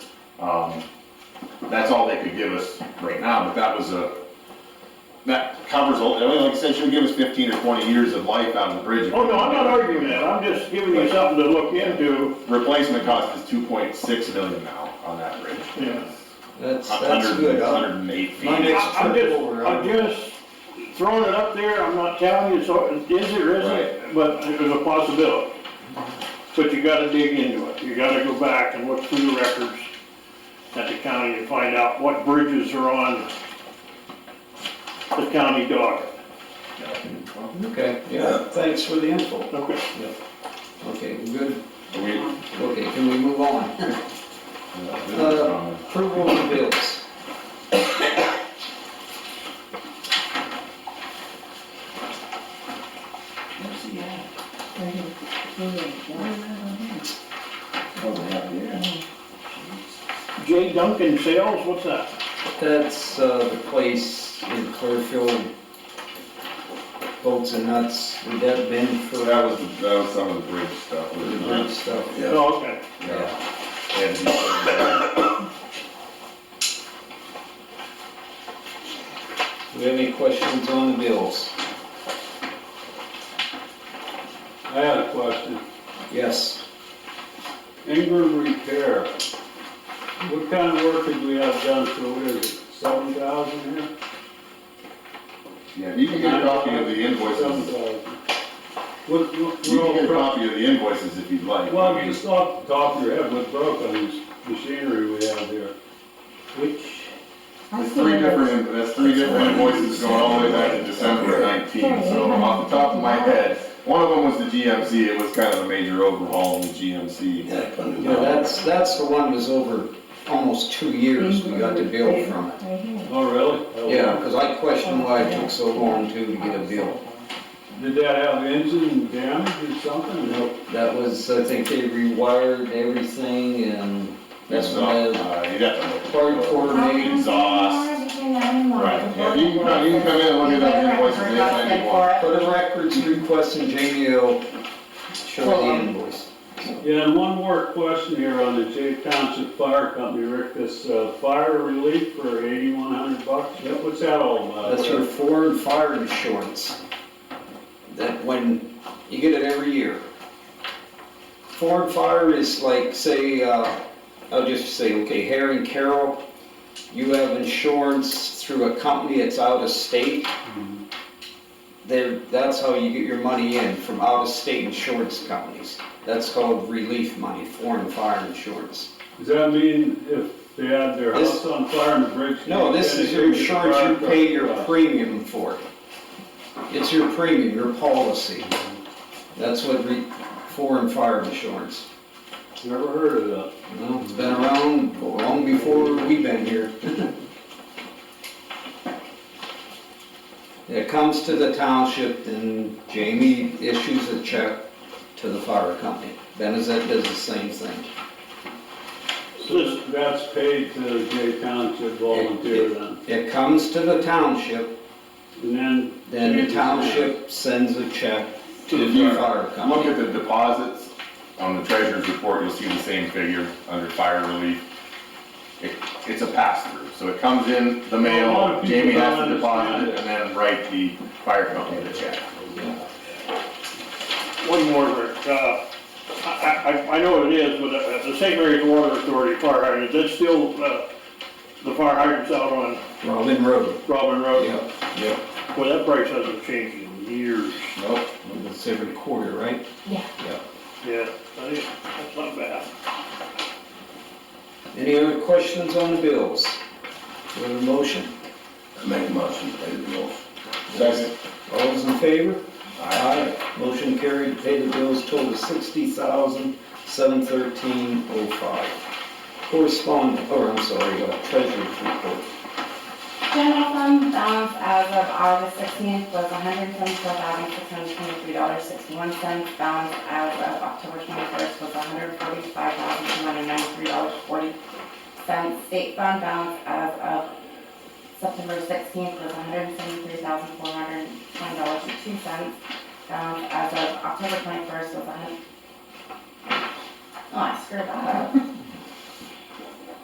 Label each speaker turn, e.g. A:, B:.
A: Um, That's all they could give us right now, but that was a, that covers, all- I mean, like I said, she'll give us fifteen or twenty years of life out of the bridge.
B: Oh, no, I'm not arguing that, I'm just giving you something to look into.
A: Replacement cost is two point six million now on that bridge.
B: Yeah.
C: That's, that's good.
A: Hundred, hundred and eight feet.
C: My next-
B: I- I'm just, I'm just throwing it up there, I'm not telling you, so is it or isn't, but there's a possibility. But you gotta dig into it, you gotta go back and look through the records at the county and find out what bridges are on the county dock.
C: Okay, yeah, thanks for the info.
B: Okay.
C: Okay, good,
A: Are we-
C: okay, can we move on? Uh, Approval of the bills.
B: J Duncan Sales, what's that?
C: That's uh, the place in Clearfield, bolts and nuts, would that have been
A: So
C: for
A: that was, that was some of the bridge stuff.
C: the bridge stuff?
A: Yeah.
B: Oh, okay.
C: Yeah.
A: And he-
C: Do we have any questions on the bills?
D: I had a question.
C: Yes,
D: Ingram Repair, what kind of work did we have done, so what is it, seven thousand here?
A: Yeah, you can get a copy of the
D: Seven
A: invoices,
D: thousand. What, what,
A: you can get a
D: what, all-
A: copy of the invoices if you'd like.
D: well, just off the top of your head, what broke on this machinery we have here?
C: which,
A: There's three different, that's three different invoices going all the way back to December of nineteen, so off the top of my head, one of them was the GMC, it was kind of a major overhaul in the GMC.
C: you know, that's, that's the one was over almost two years we got the bill from it.
D: Oh, really?
C: Yeah, because I questioned why it took so long too to get a bill.
D: Did that have engine damage or something? No.
C: That was, I think they rewired everything and that's when the
A: Uh, you'd have to look.
C: part coordinated.
A: Exhaust. Right, yeah, you can, no, you can come in and look at that invoice and anything you want.
C: For the records request and Jamie will show the invoice.
D: Yeah, and one more question here on the Jay Township Fire Company, Rick, this, uh, fire relief for eighty-one hundred bucks?
C: Yep.
D: What's that all about?
C: That's your foreign fire insurance. That when, you get it every year. Foreign fire is like, say, uh, I'll just say, okay, Harry and Carroll, you have insurance through a company that's out of state.
D: Mhm.
C: There, that's how you get your money in, from out of state insurance companies. That's called relief money, foreign fire insurance.
D: Does that mean if they had their
C: This-
D: house on fire and the bridge?
C: No, this is your insurance, you pay your premium for it. It's your premium, your policy. That's what re, foreign fire insurance.
D: Never heard of that.
C: Well, it's been around long before we've been here. It comes to the township and Jamie issues a check to the fire company. Benazet does the same thing.
D: So that's paid to Jay Township volunteer then,
C: It comes to the township,
D: and then.
C: then the township sends a check to
A: If you
C: the fire company.
A: Look at the deposits on the treasurer's report, you'll see the same figure under fire relief. It- It's a pass-through, so it comes in the
D: A lot
A: mail,
D: of people
A: Jamie has
D: don't
A: to deposit
D: understand
A: it,
D: it.
A: and then write the fire company the check.
B: One more, Rick. Uh, I, I, I know it is, but uh, the St. Mary's Water Authority fire hydrant, that's still, uh, the fire hydrants out on
C: Robin Road.
B: Robin Road.
C: Yep, yep.
B: Well, that price hasn't changed in years.
A: Nope.
C: It's every quarter, right?
E: Yeah.
B: Yeah, I think that's not bad.
C: Any other questions on the bills? Do we have a motion?
F: Make a motion to pay the bills.
A: Second.
C: All those in favor?
A: Aye.
C: Motion carried, to pay the bills total sixty thousand, seven thirteen oh five. Correspondent, or I'm sorry, uh, treasurer's report.
E: General fund balance as of August sixteenth was one hundred seventy-four thousand, six hundred twenty-three dollars, sixty-one cents. Balance as of October twenty-first was one hundred forty-five thousand, two hundred ninety-three dollars, forty cents. State fund balance as of September sixteenth was one hundred seventy-three thousand, four hundred twenty dollars and two cents. Balance as of October twenty-first was a hundred. Oh, I screwed that up.